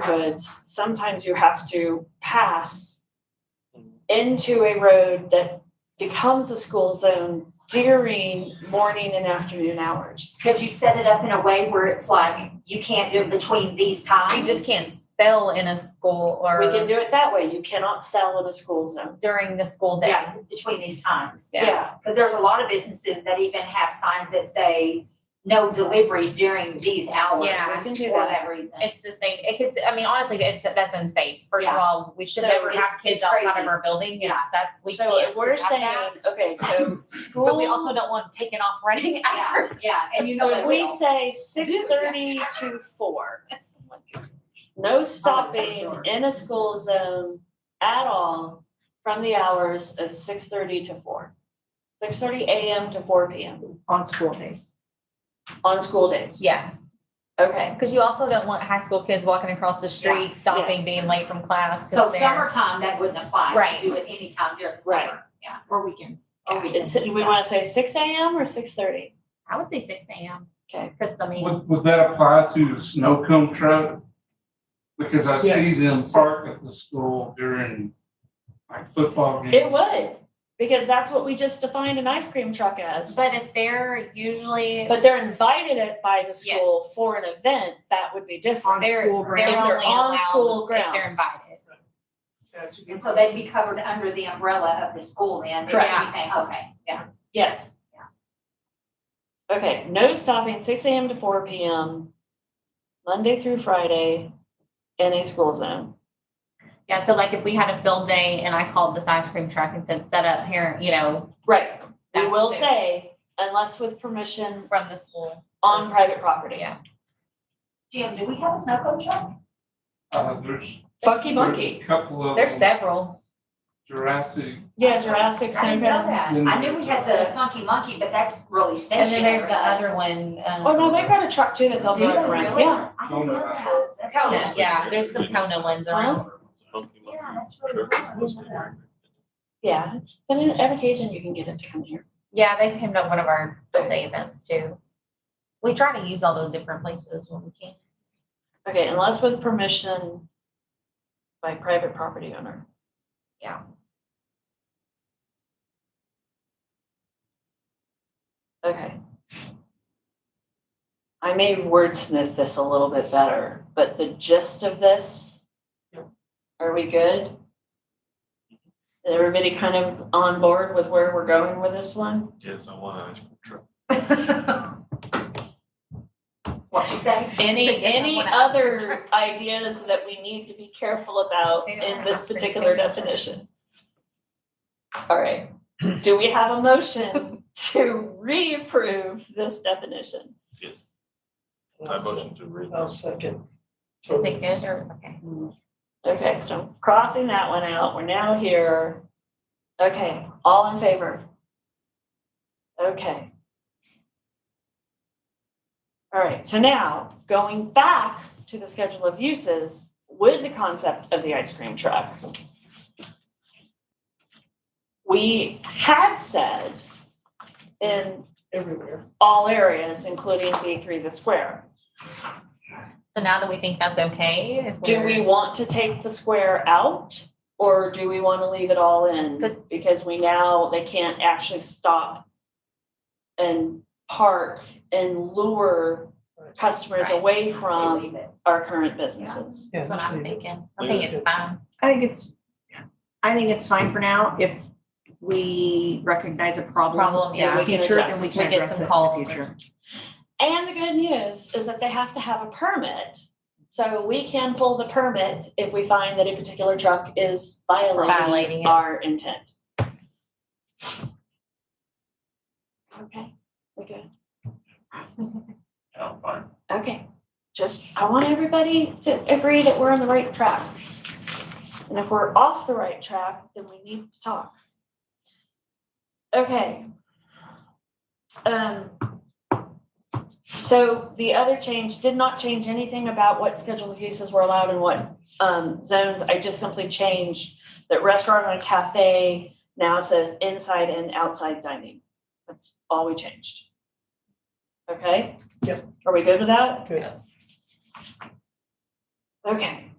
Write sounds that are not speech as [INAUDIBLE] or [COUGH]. neighborhoods, sometimes you have to pass Oh, into a road that becomes a school zone during morning and afternoon hours. Could you set it up in a way where it's like, you can't do it between these times? You just can't sell in a school or We can do it that way. You cannot sell in a school zone. during the school day. Yeah, between these times. Yeah. Because there's a lot of businesses that even have signs that say, no deliveries during these hours. Yeah, I can do For that. that reason. It's the same. It could, I mean, honestly, it's that's insane. First of Yeah. all, we should So never it's- have kids it's outside crazy. of our building. It's, Yeah. that's we So can't if we're have saying, that. okay, [LAUGHS] so school. but we also don't want them taking off running Yeah, after. [LAUGHS] yeah, and you know So they if we will. say six thirty to four, no stopping sure. in a school zone at all from the hours of six thirty to four. Six thirty AM to four PM on school days. on school days. Yes, Okay, because you also don't want high school kids walking across the street, Yeah. stopping, being late from class. 'cause So they're- summertime, that wouldn't apply. You Right. could Do it anytime during the Right. summer, yeah. Or weekends. Or we is, it- we wanna say six AM or six thirty? I would say six a.m. Okay. because I mean, Would, would that apply to the snow cone truck? Because I see Yes. them park at the school during like football games. It would, because that's what we just defined an ice cream truck as. but if they're usually But they're invited at- by the Yes. school for an event, that would be different. On they're school they're grounds. If they're only on allowed school if they're grounds. invited. And so they'd be covered under the umbrella of the school then, if Correct. anything, okay, yeah. Yes. Okay, no stopping six AM to four PM, Monday through Friday, in a school zone. Yeah, so like if we had a field day and I called this ice cream truck and said, set up here, you know, Right. We That's will fair. say, unless with permission from the school. on private property. Yeah. Jim, do we have a snow cone truck? Uh, there's. Funky there's monkey. a Couple of There's them, several. Jurassic, Yeah, Jurassic I Snow didn't know Grounds. that. I knew we had the funky monkey, but that's really And stationary. then there's the other one, um. Oh, no, they've got a truck too that they'll Do they drive around, really? yeah. I didn't know Kona. that. That's Kona, awesome. yeah, there's some Kona ones around. Yeah, that's really cool. Yeah, it's, then on an occasion you can get it to come here. Yeah, they came to one of our field day events too. We try to use all those different places when we [LAUGHS] can. Okay, unless with permission by private property owner. Yeah. Okay. I may wordsmith this a little bit better, but the gist of this, are we good? Is Everybody kind of on board with where we're going with this one? Yes, I want an ice cream truck. What'd you say? So [LAUGHS] you Any, don't any wanna- other ideas that we need to be careful about So you don't in wanna this ask for the particular same. definition? All right, do we have a [LAUGHS] motion to reapprove this definition? Yes. I motion to read. I'll second. Is it good or, okay? Okay, so crossing that one out, we're now here. Okay, all in favor? Okay. All right, so now going back to the schedule of uses with the concept of the ice cream truck. We had said in Everywhere. all areas, including B three, the square. So now that we think that's okay, if Do we're- we want to take the square out or do we want to leave it all in? 'Cause- Because we now, they can't actually stop and park and lure customers Right. away Leave from it. our current businesses. Yeah, That's what just I'm leave it. thinking. I think it's fine. I think it's, I think it's fine for now if we recognize a problem. Problem, yeah, in the we can future, then address. we can We get address some it in the calls. future. And the good news is that they have to have a permit. So we can pull the permit if we find that a particular truck is Violating violating it. our intent. Okay, we good? I'm fine. Okay, just, I want everybody to agree that we're on the right track. And if we're off the right track, then we need to talk. Okay. Um. So the other change did not change anything about what schedule of uses were allowed in what um zones. I just simply changed that restaurant and cafe now says inside and outside dining. That's all we changed. Okay? Are we good with that? Good. Okay,